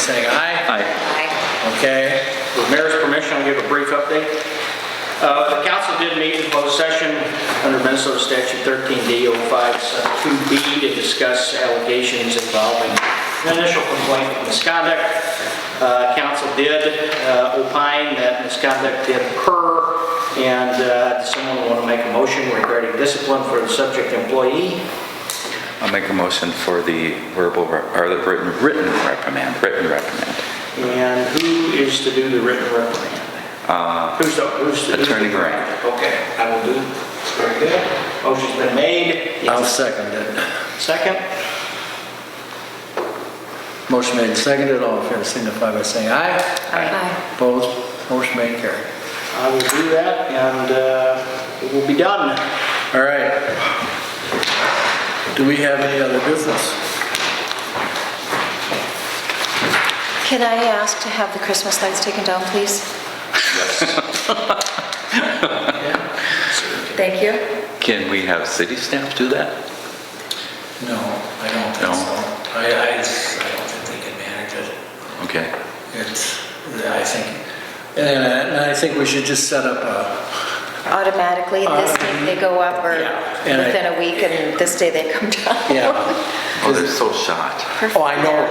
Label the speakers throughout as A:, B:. A: saying aye.
B: Aye.
C: Aye.
A: Okay,
D: With mayor's permission, I'll give a brief update. Uh, The council did meet in closed session under Minnesota Statute 13D-0572B to discuss allegations involving an initial complaint of misconduct. Uh, Council did uh, opine that misconduct did occur, and uh, does someone want to make a motion regarding discipline for the subject employee?
B: I'll make a motion for the verbal, re- or the written, written reprimand, written reprimand.
D: And who is to do the written reprimand? Who's the, who's the? who's the-
B: Uh, Attorney Grant.
D: Okay, I will do. it. Very good. Motion's been made.
B: Oh.
A: I'll second it.
D: Second?
A: Motion made and seconded, all in favor signify by saying aye.
C: Aye.
A: Opposed, motion made and carried.
D: I will do that and uh, it will be done.
A: All right. Do we have any other business?
C: Can I ask to have the Christmas lights taken down, please? Thank you.
B: Can we have city staff do that?
E: No, I don't
B: No?
E: think so. I, I just, I don't think they can manage it.
B: Okay.
E: It's, I think, and I- and I think we should just set up a,
C: Automatically, this day they go up, or
A: Uh, And I-
C: within a week, and this day they come down.
A: Yeah.
B: Oh, they're so shot.
A: Oh, I know.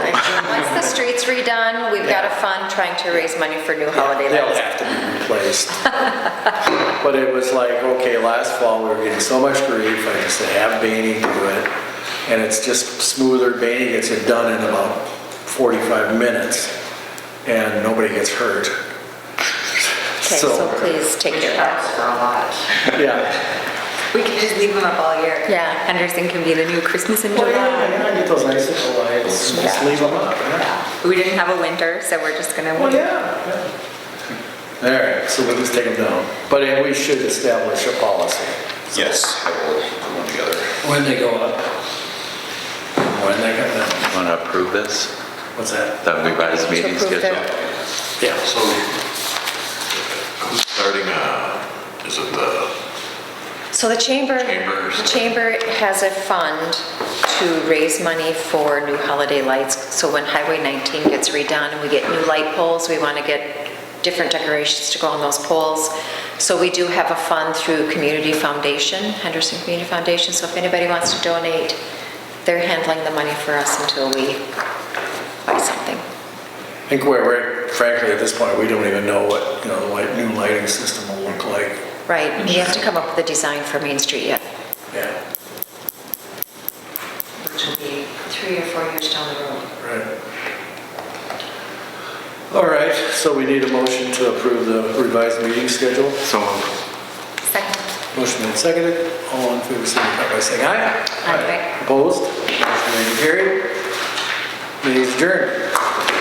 C: Once the street's redone, we've got a fund trying to raise money for new holiday
A: They'll
C: lights.
A: have to be replaced. But it was like, okay, last fall, we were getting so much grief, I just said, have Baney do it. And it's just smoother, Baney gets it done in about 45 minutes, and nobody gets hurt.
C: Okay, so please take care of that.
F: for a lot.
A: Yeah.
F: We could just leave them up all year.
C: Yeah, Henderson can be the new Christmas in
A: Well,
C: July.
A: Oh, yeah, I get those icicle lights, just leave them up, yeah.
C: We didn't have a winter, so we're just gonna.
A: Well, Oh, yeah. All right, so we'll just take them down. But uh, we should establish a policy.
G: Yes, I will put one together.
E: when they go up. When they come down.
B: Want to approve this?
E: What's that?
B: That we buy this
C: To
B: meeting
C: approve
B: schedule?
C: that.
E: Yeah.
G: So, who's starting, uh, is it the,
C: So the chamber,
G: Chambers.
C: the chamber has a fund to raise money for new holiday lights. So when Highway 19 gets redone and we get new light poles, we want to get different decorations to go on those poles. So we do have a fund through Community Foundation, Henderson Community Foundation. So if anybody wants to donate, they're handling the money for us until we buy something.
A: I think we're- we're, frankly, at this point, we don't even know what, you know, the light- new lighting system will look like.
C: Right, we have to come up with a design for Main Street yet.
A: Yeah,
C: Which will be three or four years down the road.
A: right. All right, so we need a motion to approve the revised meeting schedule.
B: So moved.
C: Second.
A: Motion made seconded. All in favor, signify by saying aye.
C: Aye.
A: Opposed? Motion made and carried. Meeting is adjourned.